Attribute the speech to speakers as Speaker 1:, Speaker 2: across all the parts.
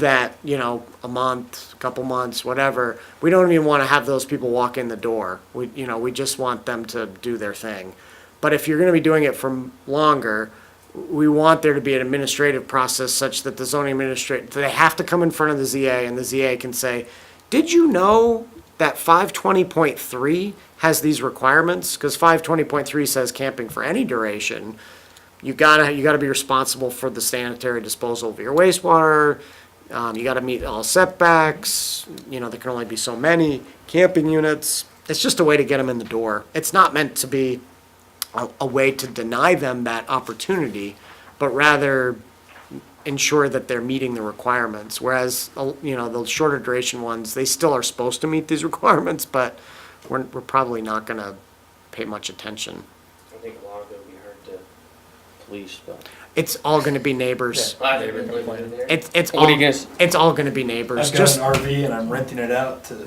Speaker 1: that, you know, a month, couple months, whatever. We don't even want to have those people walk in the door. We, you know, we just want them to do their thing. But if you're going to be doing it for longer, we want there to be an administrative process such that the zoning administrator, they have to come in front of the ZA and the ZA can say, did you know that 520.3 has these requirements? Because 520.3 says camping for any duration you gotta you gotta be responsible for the sanitary disposal of your wastewater. Um, you gotta meet all setbacks. You know there can only be so many camping units. It's just a way to get them in the door. It's not meant to be a, a way to deny them that opportunity, but rather ensure that they're meeting the requirements. Whereas uh, you know the shorter duration ones, they still are supposed to meet these requirements, but we're we're probably not gonna pay much attention.
Speaker 2: I think a lot of it we heard the police, but.
Speaker 1: It's all gonna be neighbors.
Speaker 2: I never really went there.
Speaker 1: It's it's
Speaker 2: What
Speaker 1: all
Speaker 2: do you guess?
Speaker 1: it's all gonna be neighbors.
Speaker 3: I've got
Speaker 1: Just
Speaker 3: an RV and I'm renting it out to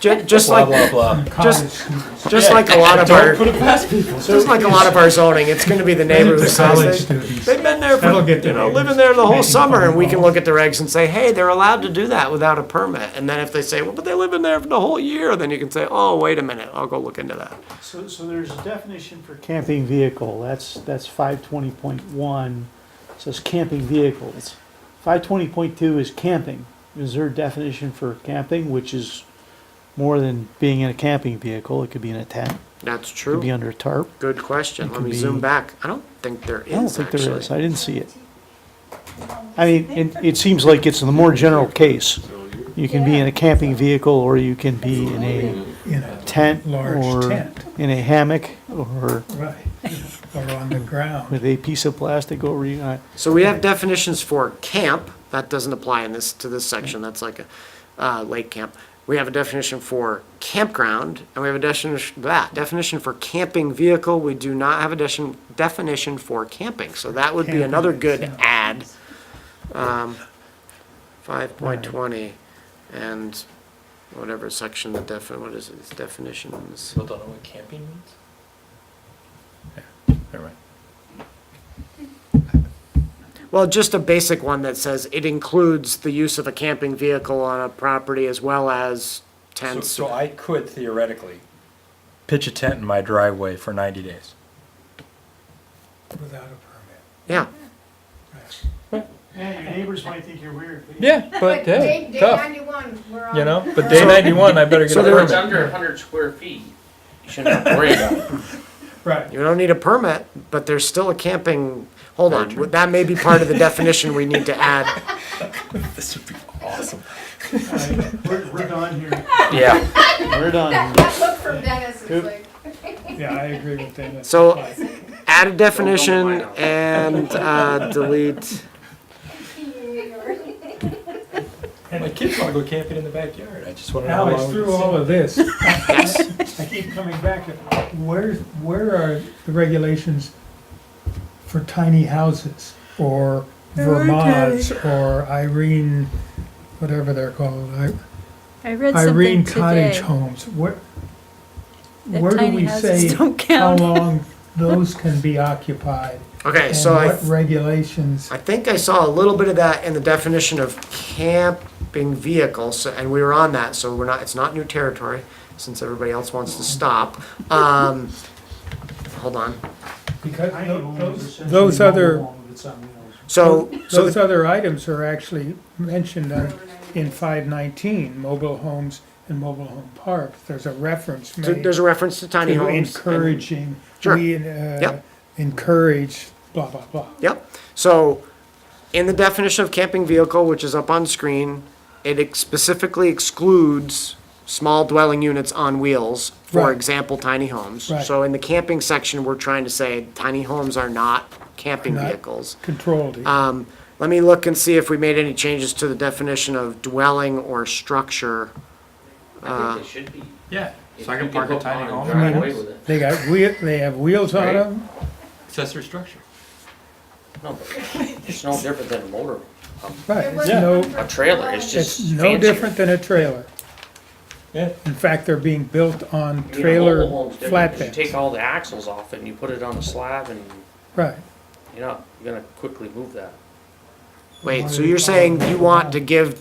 Speaker 1: ju- just
Speaker 3: blah,
Speaker 1: like
Speaker 3: blah, blah.
Speaker 1: just just like a lot of our
Speaker 3: Don't put it past people.
Speaker 1: just like a lot of our zoning, it's gonna be the neighbor who
Speaker 4: The college
Speaker 1: says they,
Speaker 4: students.
Speaker 1: they've been there
Speaker 4: That'll
Speaker 1: for
Speaker 4: get the
Speaker 1: you know
Speaker 4: neighbors
Speaker 1: living there the whole
Speaker 4: making
Speaker 1: summer, and we can
Speaker 4: phone
Speaker 1: look at the regs and say, hey, they're allowed to do that without a permit. And then if they say, well, but they live in there for the whole year, then you can say, oh, wait a minute, I'll go look into that.
Speaker 5: So, so there's a definition for camping vehicle, that's, that's five twenty point one, says camping vehicles. Five twenty point two is camping, is there a definition for camping, which is more than being in a camping vehicle, it could be in a tent, it
Speaker 1: That's
Speaker 5: could be
Speaker 1: true.
Speaker 5: under a tarp.
Speaker 1: Good question. Let
Speaker 5: could
Speaker 1: me
Speaker 5: be-
Speaker 1: zoom back. I don't think there
Speaker 5: I don't
Speaker 1: is
Speaker 5: think there
Speaker 1: actually.
Speaker 5: is, I didn't see it. I mean, it, it seems like it's the more general case, you can be in a camping vehicle, or you can be in a
Speaker 4: In a
Speaker 5: tent,
Speaker 4: Large
Speaker 5: or
Speaker 4: tent.
Speaker 5: in a hammock, or
Speaker 4: Right, or on the ground.
Speaker 5: with a piece of plastic over you, I-
Speaker 1: So we have definitions for camp, that doesn't apply in this, to this section, that's like a, uh, lake camp. We have a definition for campground, and we have a definition, that, definition for camping vehicle, we do not have a definition, definition for camping, so that would be another good
Speaker 4: Camping,
Speaker 1: add. Um, five point twenty, and whatever section the defin, what is it, it's definitions.
Speaker 3: People don't know what camping means?
Speaker 1: Well, just a basic one that says it includes the use of a camping vehicle on a property as well as
Speaker 3: So,
Speaker 1: tents.
Speaker 3: so I could theoretically pitch a tent in my driveway for ninety days.
Speaker 4: Without a
Speaker 1: Yeah,
Speaker 5: Yeah, your neighbors might think you're weird.
Speaker 3: Yeah, but hey,
Speaker 6: day, day
Speaker 3: tough,
Speaker 6: 91, we're on.
Speaker 3: you know, but day ninety-one, I better get a
Speaker 1: So there-
Speaker 2: If it's
Speaker 3: permit.
Speaker 2: under hundred square feet, you shouldn't have to worry about it.
Speaker 4: Right.
Speaker 1: you don't need a permit, but there's still a camping, hold on, that may be part of the definition we need to add.
Speaker 3: This would be awesome.
Speaker 5: We're, we're done here.
Speaker 3: Yeah.
Speaker 5: We're done.
Speaker 6: That, that look from Dennis is
Speaker 4: Oop.
Speaker 6: like,
Speaker 4: Yeah, I agree with Dennis.
Speaker 1: So add a definition and uh, delete.
Speaker 3: My kids wanna go camping in the backyard, I just wanna know how
Speaker 4: Alex,
Speaker 3: long.
Speaker 4: through all of this, I keep coming back to, where, where are the regulations for tiny houses? Or Vermont's, or Irene, whatever they're called, I-
Speaker 7: I read
Speaker 4: Irene
Speaker 7: something
Speaker 4: cottage
Speaker 7: today
Speaker 4: homes, where,
Speaker 7: that
Speaker 4: where do
Speaker 7: tiny
Speaker 4: we
Speaker 7: houses
Speaker 4: say
Speaker 7: don't
Speaker 4: how
Speaker 7: count.
Speaker 4: long those can be occupied?
Speaker 1: Okay,
Speaker 4: And
Speaker 1: so I,
Speaker 4: what regulations,
Speaker 1: I think I saw a little bit of that in the definition of camping vehicle, so, and we were on that, so we're not, it's not new territory, since everybody else wants to stop. Um, hold on,
Speaker 4: because those, those other,
Speaker 1: so, so
Speaker 4: those other items are actually mentioned on- in five nineteen, mobile homes and mobile home parks. There's a reference
Speaker 1: So
Speaker 4: made
Speaker 1: There's a reference to tiny
Speaker 4: to
Speaker 1: homes. and-
Speaker 4: encouraging,
Speaker 1: Sure.
Speaker 4: we uh,
Speaker 1: Yep.
Speaker 4: encourage blah, blah, blah.
Speaker 1: Yep, so in the definition of camping vehicle, which is up on screen, it ex- specifically excludes small dwelling units on wheels, for
Speaker 4: Right.
Speaker 1: example, tiny homes.
Speaker 4: Right.
Speaker 1: So in the camping section, we're trying to say tiny homes are not camping
Speaker 4: Not-
Speaker 1: vehicles.
Speaker 4: Controlled.
Speaker 1: Um, let me look and see if we made any changes to the definition of dwelling or structure.
Speaker 2: I think they should be.
Speaker 3: Yeah,
Speaker 2: If
Speaker 3: so I
Speaker 2: you
Speaker 3: can park a
Speaker 2: hook on
Speaker 3: tiny
Speaker 2: and
Speaker 3: home,
Speaker 2: Drive
Speaker 3: and
Speaker 2: away with it.
Speaker 4: They got wheel, they have wheels on
Speaker 2: Right.
Speaker 4: them,
Speaker 3: accessory structure.
Speaker 2: No, but it's no different than a motor,
Speaker 4: right,
Speaker 6: There
Speaker 4: it's
Speaker 6: wasn't
Speaker 4: no,
Speaker 6: one for
Speaker 2: a trailer, it's
Speaker 4: it's
Speaker 2: just
Speaker 4: no
Speaker 2: fancier.
Speaker 4: different than a trailer.
Speaker 3: Yeah.
Speaker 4: In fact, they're being built on
Speaker 2: You know,
Speaker 4: trailer
Speaker 2: mobile home's different 'cause You take
Speaker 4: flatbeds,
Speaker 2: all the axles off it and you put it on a slab and,
Speaker 4: right.
Speaker 2: you know, you're gonna quickly move that.
Speaker 1: Wait, so you're saying you want to give